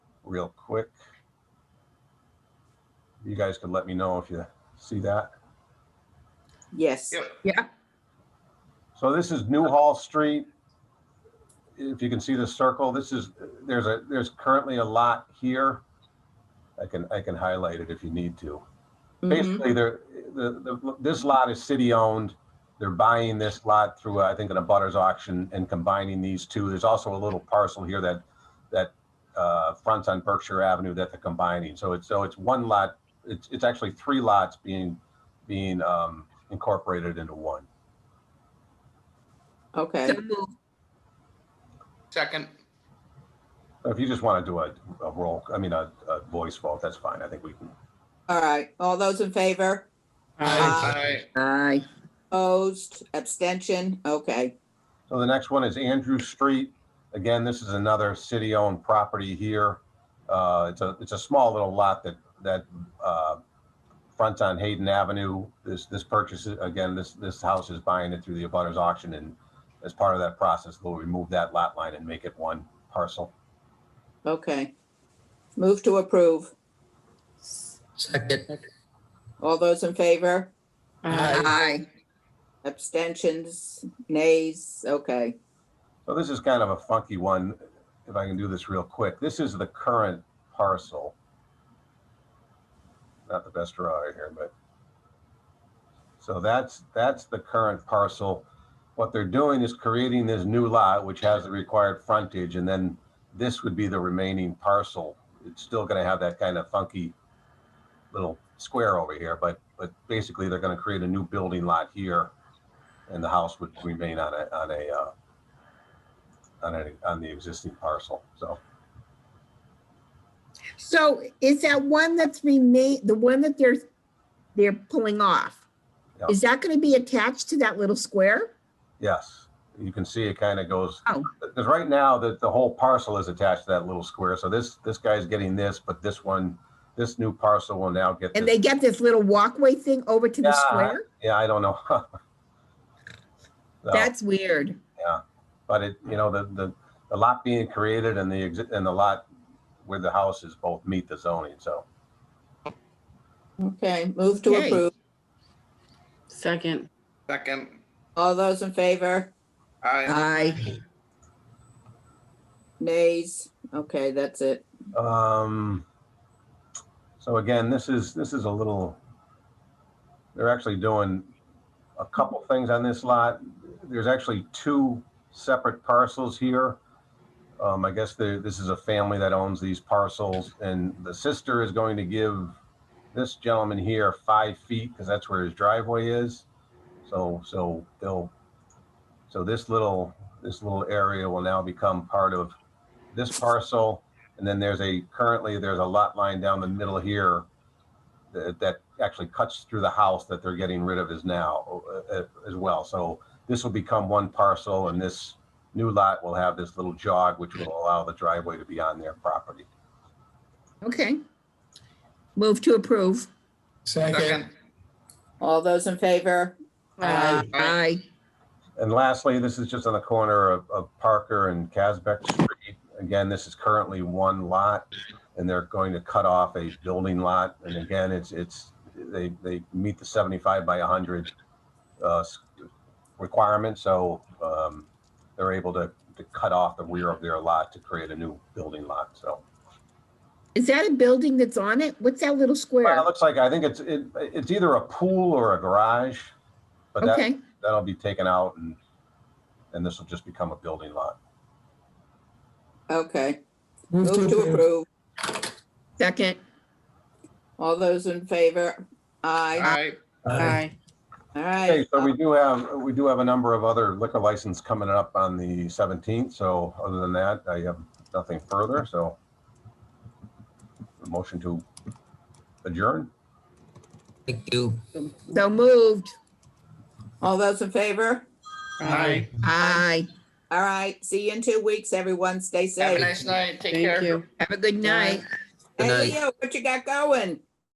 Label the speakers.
Speaker 1: real quick. You guys could let me know if you see that.
Speaker 2: Yes.
Speaker 3: Yep.
Speaker 1: So this is Newhall Street. If you can see the circle, this is, there's a, there's currently a lot here. I can, I can highlight it if you need to.
Speaker 2: Mhm.
Speaker 1: Basically, they're, the, the, this lot is city-owned. They're buying this lot through, I think, an abutters auction and combining these two. There's also a little parcel here that, that uh, fronts on Berkshire Avenue that they're combining. So it's, so it's one lot, it's, it's actually three lots being, being um, incorporated into one.
Speaker 2: Okay.
Speaker 4: So move.
Speaker 3: Second,
Speaker 1: If you just want to do a, a roll, I mean, a, a voice vote, that's fine. I think we can.
Speaker 2: All right. All those in favor?
Speaker 3: aye,
Speaker 4: Aye.
Speaker 2: Opposed? Abstention? Okay.
Speaker 1: So the next one is Andrew Street. Again, this is another city-owned property here. Uh, it's a, it's a small little lot that, that, uh, fronts on Hayden Avenue. This, this purchase, is- again, this, this house is buying it through the abutters auction and as part of that process, they'll remove that lot line and make it one parcel.
Speaker 2: Okay. Move to approve.
Speaker 4: Second.
Speaker 2: All those in favor?
Speaker 4: Aye.
Speaker 2: Abstentions? Nays? Okay.
Speaker 1: So this is kind of a funky one, if I can do this real quick. This is the current parcel. Not the best drawing here, but. So that's, that's the current parcel. What they're doing is creating this new lot, which has the required frontage, and then this would be the remaining parcel. It's still gonna have that kind of funky little square over here, but, but basically they're gonna create a new building lot here. And the house would remain on a, on a, uh, on any, on the existing parcel, so.
Speaker 4: So is that one that's remain, the one that they're, they're pulling off?
Speaker 1: Yeah.
Speaker 4: Is that gonna be attached to that little square?
Speaker 1: Yes, you can see it kind of goes,
Speaker 4: Oh.
Speaker 1: because right now the, the whole parcel is attached to that little square. So this, this guy's getting this, but this one, this new parcel will now get
Speaker 4: And
Speaker 1: this.
Speaker 4: they get this little walkway thing over to the
Speaker 1: Yeah.
Speaker 4: square?
Speaker 1: Yeah, I don't know. So,
Speaker 4: That's weird.
Speaker 1: But it, you know, the, the, the lot being created and the exit, and the lot where the house is both meet the zoning, so.
Speaker 2: Okay. Move to
Speaker 4: Okay.
Speaker 2: approve.
Speaker 5: Second.
Speaker 3: second,
Speaker 2: All those in favor?
Speaker 3: aye,
Speaker 4: Aye.
Speaker 2: Nays? Okay, that's it.
Speaker 1: Um, so again, this is, this is a little, they're actually doing a couple things on this lot. There's actually two separate parcels here. Um, I guess the, this is a family that owns these parcels and the sister is going to give this gentleman here five feet because that's where his driveway is. So, so they'll, so this little, this little area will now become part of this parcel. And then there's a, currently, there's a lot line down the middle here that, that actually cuts through the house that they're getting rid of is now uh, uh, as well. So this will become one parcel and this new lot will have this little jog, which will allow the driveway to be on their property.
Speaker 4: Okay. Move to approve.
Speaker 3: second,
Speaker 2: All those in favor?
Speaker 5: Aye.
Speaker 4: Aye.
Speaker 1: And lastly, this is just on the corner of, of Parker and Casbeck Street. Again, this is currently one lot and they're going to cut off a building lot. And again, it's, it's, they, they meet the 75 by 100 uh, s- requirement. So um, they're able to, to cut off the rear of their lot to create a new building lot. So
Speaker 4: Is that a building that's on it? What's that little
Speaker 1: Well, it
Speaker 4: square?
Speaker 1: looks like, I think it's, it, it's either a pool or a garage, but that,
Speaker 4: Okay,
Speaker 1: that'll be taken out and, and this will just become a building lot.
Speaker 2: Okay. Move to approve.
Speaker 4: second.
Speaker 2: All those in favor? Aye.
Speaker 3: aye,
Speaker 5: Aye.
Speaker 2: All
Speaker 1: Okay,
Speaker 2: right.
Speaker 1: so we do have, we do have a number of other liquor license coming up on the 17th, so other than that, I have nothing further, so. a Motion to adjourn?
Speaker 6: Thank you.
Speaker 4: So moved.
Speaker 2: All those in favor?
Speaker 3: aye.
Speaker 4: Aye.
Speaker 2: All right. See you in two weeks, everyone. Stay
Speaker 3: Have a
Speaker 2: safe.
Speaker 3: nice night, take
Speaker 5: Thank
Speaker 3: care.
Speaker 5: you.
Speaker 4: Have a good night.
Speaker 2: Hey,
Speaker 6: Good night.
Speaker 2: Leo, what you got going?